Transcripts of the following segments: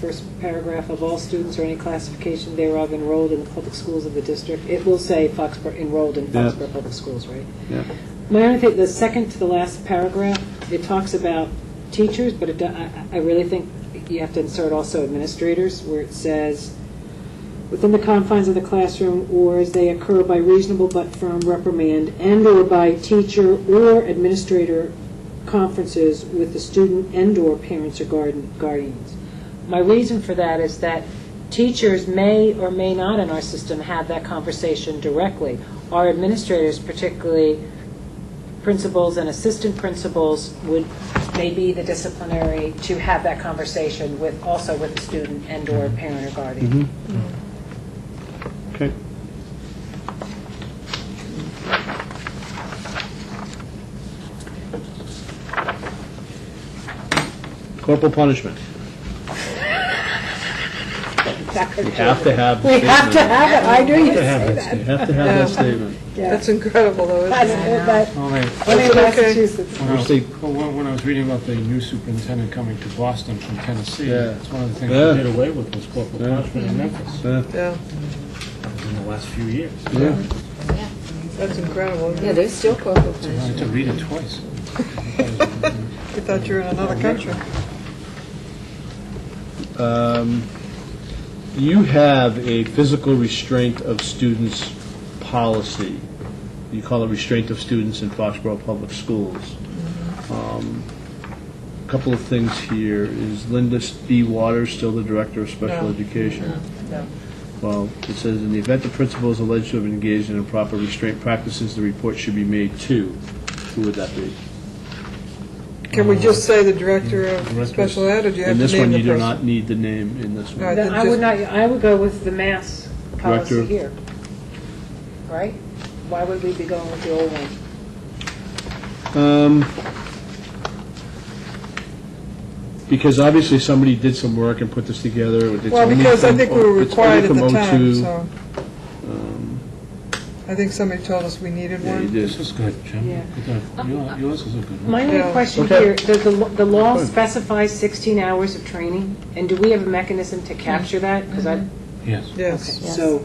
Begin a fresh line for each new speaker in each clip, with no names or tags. First paragraph of all students or any classification thereof enrolled in the public schools of the district. It will say Foxborough, enrolled in
Yeah.
Foxborough Public Schools, right?
Yeah.
My only thing, the second to the last paragraph, it talks about teachers, but it, do- I, I really think you have to insert also administrators, where it says, within the confines of the classroom, or as they occur by reasonable but firm reprimand, and/or by teacher or administrator conferences with the student and/or parents or guardian- guardians. My reason for that is that teachers may or may not in our system have that conversation directly. Our administrators, particularly principals and assistant principals would, may be the disciplinary to have that conversation with, also with the student and/or parent or
Mm-hmm.
guardian.
Okay. Corporal punishment.
Exactly.
You have to have. the
We have to
statement.
have it, I knew
You
you'd
have
say
that
that.
statement. You have to have that statement.
Yeah.
That's incredible, though, isn't
That's-
it?
that-
All right.
Only in
okay.
Massachusetts.
When I was-
Obviously-
well, When when I was reading about the new superintendent coming to Boston from Tennessee,
Yeah.
that's one of the things
Yeah.
they did away with was corporal
Yeah.
punishment in Memphis
Uh,
Yeah,
in the last few years.
Yeah.
that's incredible.
Yeah, there's still corporal
I
punishment.
had to read it twice.
You thought you were in another country.
Um, You have a physical restraint of students policy. You call it restraint of students in Foxborough Public Schools. Um, A Couple of things here, is Linda B. Waters still the Director of Special
No.
Education?
No.
Well, it says, in the event the principal is alleged to have engaged in improper restraint practices, the report should be made to, who would that be?
Can we just say the director of special ed, or do you have
In
to
this
name
one,
the
you do
person?
not need the name in this one.
Right.
Then I would not, I would go with the mass policy
Director.
here. Right? Why would we be going with the old one?
Um, Because obviously somebody did some work and put this together, or did
Well,
somebody
because I
from-
think we were
it's only
required at
from
the time,
02.
so. I think somebody told us we needed
Yeah, you
one.
did.
This is good, Jim.
Yeah.
Good. Your- Yours is a good one.
My only
Yeah.
question
Okay.
here, does the, lo- the law
Good.
specify 16 hours of training? And do we have a mechanism to capture that? Because I,
Yes.
Yes.
Yes.
so,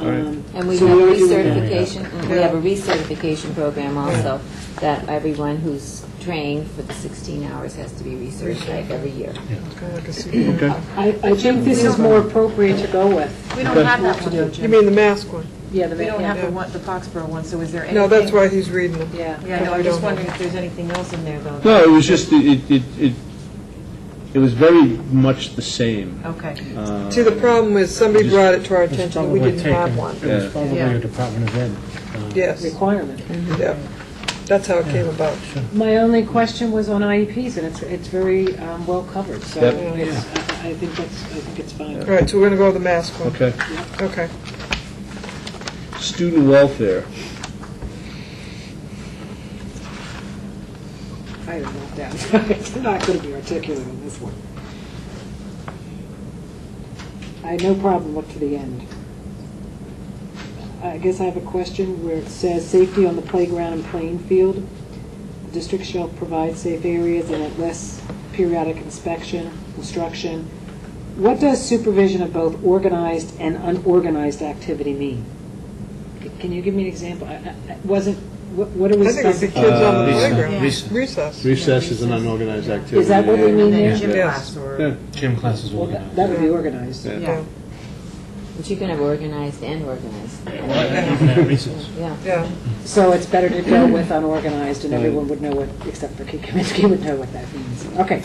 All right.
um,
And we
So
have
we already do that.
recertification, mm, we have a recertification program also, that everyone who's trained for the 16 hours has to be recertified every year.
It's kinda like a secret.
Okay,
I, I think this is more appropriate to go with.
We don't
Okay.
have that one, though,
You
Jim.
mean the mask one?
Yeah, the,
We
ma-
don't have
yeah,
the one, the Foxborough one, so is there anything?
No, that's why he's reading them.
yeah.
Yeah, no,
We
I'm
don't have-
just wondering if there's anything else in there, though.
no, it was just, it, it, it it was very much the same.
Okay.
Uh,
See, the problem is, somebody
Just-
brought it to our
It was
attention, that we
probably
didn't have
taken-
one.
It
Yeah.
was probably
Yeah.
a Department of Ed. uh,
Yes,
Requirement.
yeah. That's how it came about.
My only question was on IEPs, and it's, it's very um, well covered, so
Yep.
it's, I I think that's, I think it's fine.
All right, so we're gonna go with the mask one.
Okay,
Okay.
student welfare,
I don't know, that, it's not going to be articulate on this one. I had no problem up to the end. I guess I have a question where it says, "Safety on the playground and playing field. The District shall provide safe areas and at less periodic inspection, instruction." What does supervision of both organized and unorganized activity mean? C- Can you give me an example? I- I- I wasn't, what what are we
I think it's the
supposed
kids on the
Uh,
playground.
recess.
Recess.
recess is an unorganized activity.
Is that what they mean
And
there?
then gym
Yeah.
class
Yeah.
or,
Gym classes
Well,
will be.
that that would be organized.
Yeah.
yeah.
But you can have organized and organized,
Recess.
yeah.
Yeah,
So it's better to go with
Mm-hmm.
unorganized, and everyone would know what, except for Kate Kaminsky would know what that means. Okay.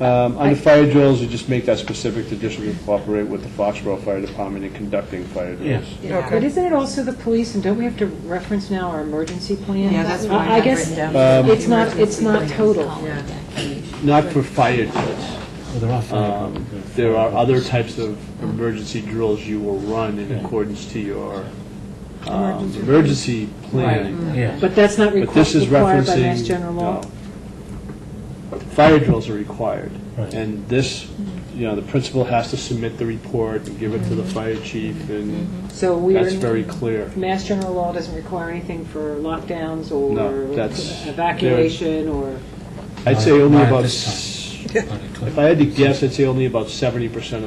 Um, Under fire drills, you just make that specific, the district will cooperate with the Foxborough Fire Department in conducting fire drills.
Yes.
Yeah.
But
okay.
isn't it also the police, and don't we have to reference now our emergency plan?
Yeah, that's what I
I
had
guess
written
Um,
down.
It's not, it's not total.
Yeah.
Not for fire drills.
Well, there are five.
Um, There are other types of emergency drills you will run in accordance to your um, emergency planning.
Yeah.
But that's not
But this
requ-
is
required by
referencing...
Mass General Law?
no. Fire drills are required.
Right.
And this, you know, the principal has to submit the report and give it to the fire chief, and
So Mm-hmm. we
that's
are,
very clear.
Mass General Law doesn't require anything for lockdowns or
No, that's-
evacuation or,
I'd say only
Not at
about,
this
s-
Yeah.
If I had to guess, I'd say only about 70% of